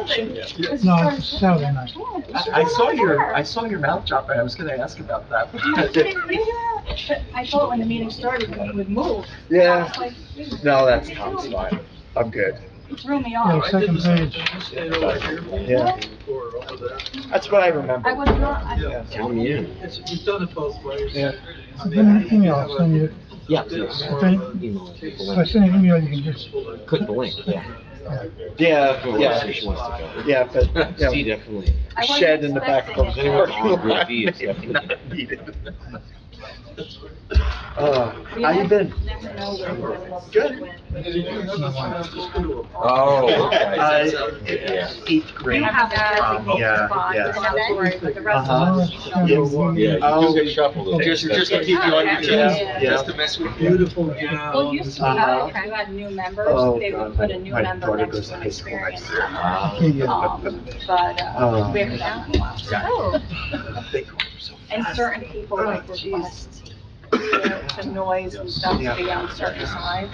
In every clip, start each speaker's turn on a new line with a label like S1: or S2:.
S1: No, it's Saturday night. Oh,
S2: I I saw your, I saw your mouth drop, and I was gonna ask about that.
S3: I thought when the meeting started, we would move. I
S2: Yeah,
S3: was like, "Dude,
S2: no, that's, Tom's fine. I'm good.
S3: it Threw me
S1: Yeah,
S3: off.
S1: second page.
S2: Yeah, that's what I remember.
S3: I was not, I,
S4: You've done it both ways.
S2: Yeah.
S1: I've been an email, I'll send you,
S5: Yeah, please. Email
S1: if
S5: people
S1: I
S5: link.
S1: send an email, you can just,
S5: Click the link, yeah.
S2: Yeah,
S5: Go where
S2: yeah,
S5: she wants to
S2: yeah, but,
S5: go. See,
S2: yeah,
S5: definitely.
S3: I wasn't
S2: shed in the back of.
S3: expecting it.
S2: Uh,
S3: We
S2: how you been?
S3: never know where we're gonna go.
S2: Good.
S5: Oh,
S2: Uh,
S5: okay.
S2: it- Eighth grade.
S3: You have that.
S2: Um, Yeah, yeah.
S1: oh,
S2: Uh-huh.
S1: it's Saturday.
S6: Yeah, you do get shuffled. a little.
S7: Just, just to
S6: That's-
S7: keep you on your
S2: Yeah.
S7: toes, just to mess with you.
S4: Beautiful job.
S3: Well, used to be,
S2: Uh-huh.
S3: if you had new members,
S2: Oh,
S3: they would
S2: God,
S3: put a new
S2: my
S3: member
S2: daughter
S3: next
S2: goes
S3: to
S2: to
S3: an
S2: high school
S3: experience.
S2: next year.
S1: Okay, yeah.
S3: Um, But, uh,
S2: Um,
S3: we haven't done it in a while. And certain people like
S2: Oh,
S3: request you know, the noise and stuff to be on certain sides.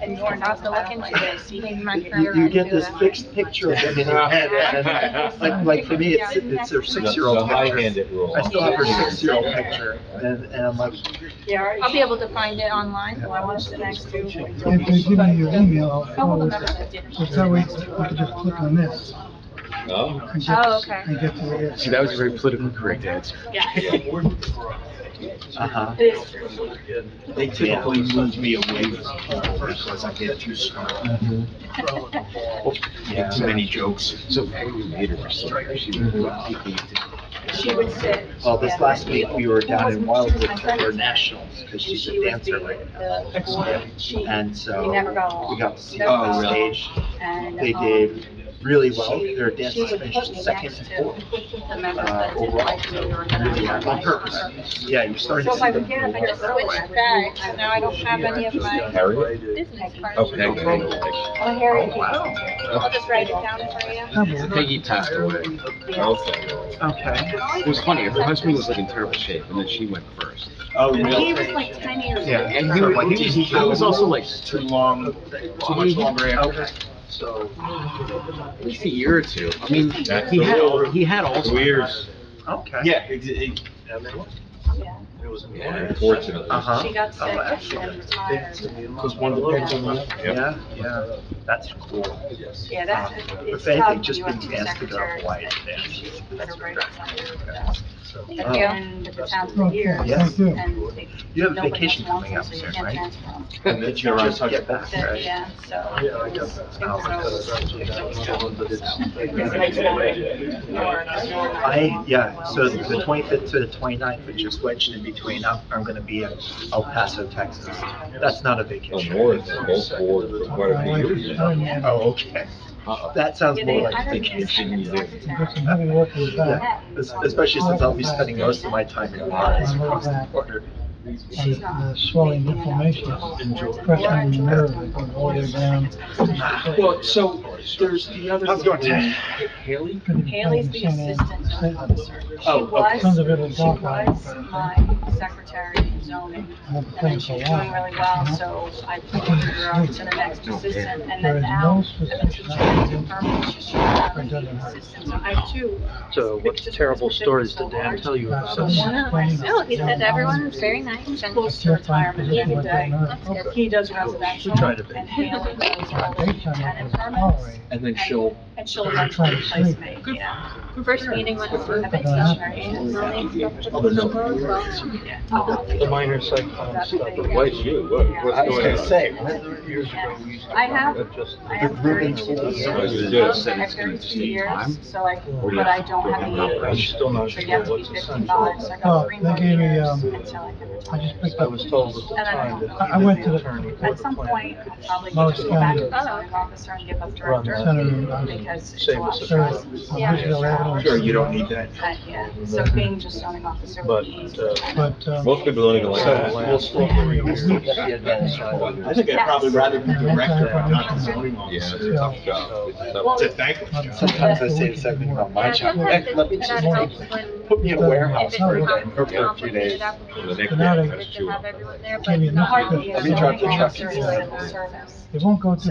S3: And you're not looking to this, you can
S2: You, you- you get this fixed picture of them in your head, and then, like, like for me, it's, it's their
S6: The
S2: six-year-old picture.
S6: high-handed rule.
S2: I still have her six-year-old picture, and, and I'm like,
S3: I'll be able to find it online. Well, I watched the next two.
S1: If you give me your email, I'll
S3: Couple of
S1: forward
S3: members
S1: it.
S3: that didn't.
S1: So that way, we can just click on this
S6: Oh.
S1: and get,
S3: Oh, okay.
S1: and get to it.
S2: that was a very politically correct answer.
S3: Yeah.
S2: Uh-huh.
S3: It is true.
S2: They typically move me away from people because I get too smart. Too many jokes.
S5: So, we made her so she would-
S3: She would sit.
S2: Well, Oh, this
S3: yeah.
S2: last week, we were down in Wildwood for nationals, because she's
S3: She
S2: a
S3: was the,
S2: dancer, right?
S3: the board chief.
S2: And so,
S3: They never got
S2: we
S3: along.
S2: got to see her on
S3: Oh, really?
S2: stage,
S3: And,
S2: they
S3: um,
S2: did really well,
S3: she-
S2: their dance
S3: she would put
S2: finished
S3: me
S2: second
S3: next
S2: and
S3: to
S2: fourth.
S3: The members
S2: uh,
S3: that didn't
S2: overall.
S3: like me or that I
S2: Really,
S3: didn't
S2: on
S3: like.
S2: purpose. Yeah, you started
S3: So
S2: to
S3: if I
S2: see
S3: would
S2: them.
S3: get up
S2: move
S3: and
S2: up.
S3: just switch back, now I don't have any of my
S6: Harriet?
S3: business cards.
S6: Oh, Peggy.
S3: Oh, here it is.
S2: Oh, wow.
S3: I'll
S2: Oh,
S3: just write it down for you.
S5: Peggy passed away.
S6: Okay.
S2: Okay.
S5: It was funny, her husband was like in terrible shape, and then she went first.
S2: Oh,
S3: He
S2: really?
S3: was like ten years.
S2: Yeah.
S3: old.
S5: And he was, he was- he was also like
S2: Too long,
S5: too much longer after,
S2: okay.
S5: at least a year or two. I mean, he had, all- he had Alzheimer's.
S2: Okay.
S6: Yeah, ex- ex-
S3: Yeah.
S6: unfortunately.
S2: Uh-huh.
S3: She got
S2: Oh,
S3: sick
S2: actually.
S3: and retired.
S5: Because one depends on the.
S2: Yeah, yeah, that's cool.
S3: Yeah,
S2: Um,
S3: that's.
S2: But
S3: it's
S2: Faith
S3: tough
S2: had
S3: when
S2: just
S3: you
S2: been
S3: have two
S2: tasked to go to
S3: secretaries
S2: Hawaii
S3: that
S2: today.
S3: choose who
S2: That's
S3: to write
S2: correct.
S3: on.
S2: Uh,
S3: And the town's
S1: Okay,
S3: years.
S1: thank you.
S3: and they-
S2: You have
S3: nobody
S2: vacation
S3: else wants
S2: coming
S3: them,
S2: up
S3: so you
S2: soon,
S3: can't
S2: right?
S3: transfer them.
S6: And then you're on
S2: Just
S6: target.
S2: get back,
S3: That-
S2: right?
S3: Yeah, so. it was- it was always-
S2: I, yeah, so the twenty-fifth to the 29th, which is wedged in between, I'm, I'm gonna be in El Paso, Texas. That's not a
S6: The
S2: vacation.
S6: north, the whole board for quite a few years. Uh-uh. now.
S2: Oh, okay. That sounds
S3: Yeah,
S2: more
S3: they-
S2: like
S3: I
S2: a
S3: don't think it's
S2: vacation.
S3: second secretary.
S1: Got some heavy work with that.
S3: Yeah,
S2: Es- Especially since I'll be spending most of my time in Juarez across the border.
S3: she's
S1: And
S3: not.
S1: uh, swelling inflammation, pressure in the nerve, going all the way down.
S7: Well, so there's the other.
S2: How's it going, Ted?
S7: Haley?
S3: Haley's the assistant zone officer. She
S2: Oh, okay.
S3: was,
S1: Sons of Italy
S3: she was
S1: Golf Club.
S3: my secretary in zoning,
S1: And
S3: and then she was doing really well, so I promoted her up to the next assistant, and then now, eventually she got to permanent, she's trying to be assistant, so I have two.
S7: So what terrible stories did Dan tell you about us?
S1: No, he said everyone was very
S3: nice and. Close to retirement, he's a day. He does residential,
S7: We tried to be.
S3: and Haley does all the tenant permits,
S1: First
S7: And then she'll,
S3: and she'll eventually replace me, yeah.
S1: meeting was.
S3: I think so, right?
S6: Oh, no.
S3: The minor site plan stuff.
S6: Why'd you? What,
S2: I was gonna
S6: what's going on?
S2: say, what?
S3: I have, I have
S2: Ruben's
S3: thirty-two years,
S6: Oh, you
S3: I
S6: do.
S3: have thirty-two years, so I, but I don't have any operations.
S7: still not
S3: So you have to be fifty-five, so I
S1: Oh,
S3: got three
S1: they
S3: more
S1: gave me,
S3: years
S1: um,
S3: until I can
S1: I
S3: retire.
S1: just picked
S7: I
S1: up,
S7: was told at the
S3: And I
S7: time
S3: don't
S7: that.
S3: know.
S1: I- I went to the-
S3: At some point, I'll probably
S1: Most
S3: just go back to
S1: county.
S3: the zoning officer and give up
S7: Run
S3: director,
S1: that.
S3: because it's a
S7: Same as
S3: lot of
S7: the-
S3: stress.
S1: Sure,
S3: Yeah.
S1: Ridgeville Avenue.
S6: Sure, you don't need that.
S3: But, yeah, so being just zoning officer
S7: But,
S3: would be easy.
S7: uh,
S1: but, um,
S6: Most people don't something like
S2: So
S6: that.
S2: we'll still, we'll still get the advantage out of
S6: I
S2: it.
S6: think I'd probably rather be director and not the zoning
S5: Yeah,
S6: officer.
S5: it's a tough job. It's a tough-
S6: It's a thankless job.
S2: Sometimes I say the same thing about my
S8: Yeah,
S2: job.
S8: sometimes
S2: Heck, let me
S8: it- that
S2: just
S8: helps
S2: take,
S8: when.
S2: put me in a warehouse
S8: if it's
S2: for a
S8: not
S2: day, or for a few
S8: complicated
S2: days.
S5: The
S8: application,
S5: next
S8: it's
S5: day,
S8: good
S5: that's
S8: to
S5: two.
S8: have everyone there, but
S1: Maybe
S8: not
S1: not.
S8: all the
S2: We drive the truck
S8: services
S2: instead.
S8: and service.
S1: It won't go to